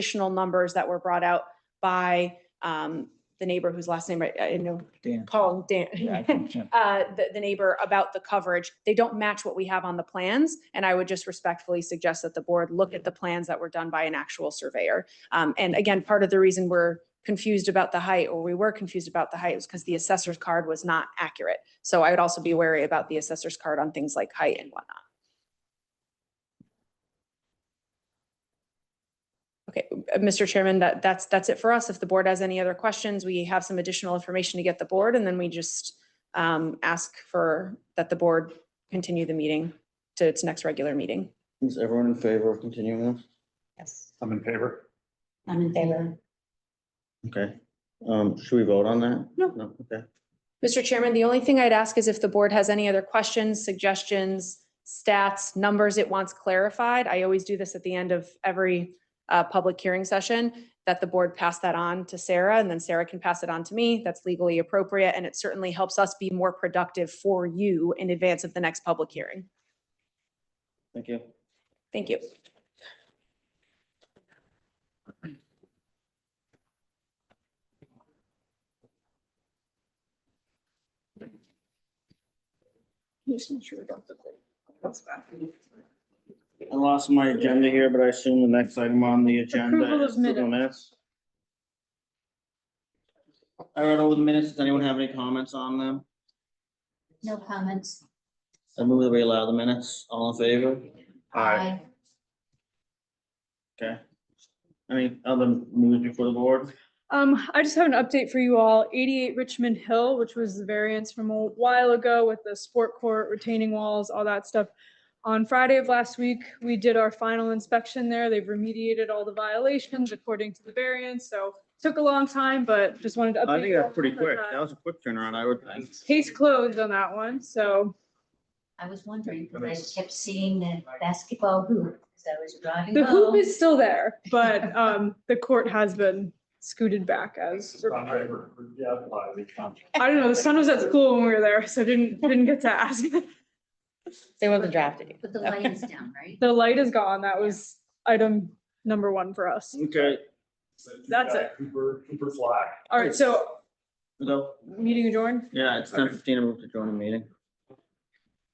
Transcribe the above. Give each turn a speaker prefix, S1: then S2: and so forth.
S1: additional numbers that were brought out by um, the neighbor whose last name I I know,
S2: Dan.
S1: Paul
S2: Yeah, I
S1: Dan,
S2: think so.
S1: uh, the the neighbor about the coverage. They don't match what we have on the plans. And I would just respectfully suggest that the board look at the plans that were done by an actual surveyor. Um, And again, part of the reason we're confused about the height, or we were confused about the height, was because the assessor's card was not accurate. So I would also be wary about the assessor's card on things like height and whatnot. Okay, uh, Mr. Chairman, that, that's, that's it for us. If the board has any other questions, we have some additional information to get the board, and then we just um, ask for, that the board continue the meeting to its next regular meeting.
S3: Is everyone in favor of continuing this?
S4: Yes,
S5: I'm in favor.
S4: I'm in favor.
S3: Okay, um, should we vote on that?
S1: No.
S3: No, okay.
S1: Mr. Chairman, the only thing I'd ask is if the board has any other questions, suggestions, stats, numbers it wants clarified. I always do this at the end of every uh, public hearing session, that the board pass that on to Sarah, and then Sarah can pass it on to me. That's legally appropriate, and it certainly helps us be more productive for you in advance of the next public hearing.
S3: Thank you.
S1: Thank you.
S3: I lost my agenda here, but I assume the next item on the agenda is the minutes. I read over the minutes. Does anyone have any comments on them?
S4: No comments.
S3: I move that we allow the minutes. All in favor?
S4: Aye.
S3: Okay. Any other news before the board?
S6: Um, I just have an update for you all. Eighty-eight Richmond Hill, which was the variance from a while ago with the sport court, retaining walls, all that stuff. On Friday of last week, we did our final inspection there. They've remediated all the violations according to the variance, so took a long time, but just wanted to update.
S3: I think
S6: you all
S3: that's pretty
S6: on
S3: quick.
S6: that.
S3: That was a quick turnaround, I would think.
S6: Case closed on that one, so
S4: I was wondering, because I kept seeing the basketball hoop, as I was driving
S6: the hoop
S4: home.
S6: is still there, but, um, the court has been scooted back as. required. I don't know, the son was at school when we were there, so didn't, didn't get to ask.
S7: They wasn't drafted.
S4: Put the light is down, right?
S6: The light is gone. That was item number one for us.
S3: Okay,
S6: That's it.
S5: Cooper, Cooper Flag.
S6: All right, so
S3: so,
S6: meeting adjourned?
S3: yeah, it's ten fifteen. I'm going to join the meeting.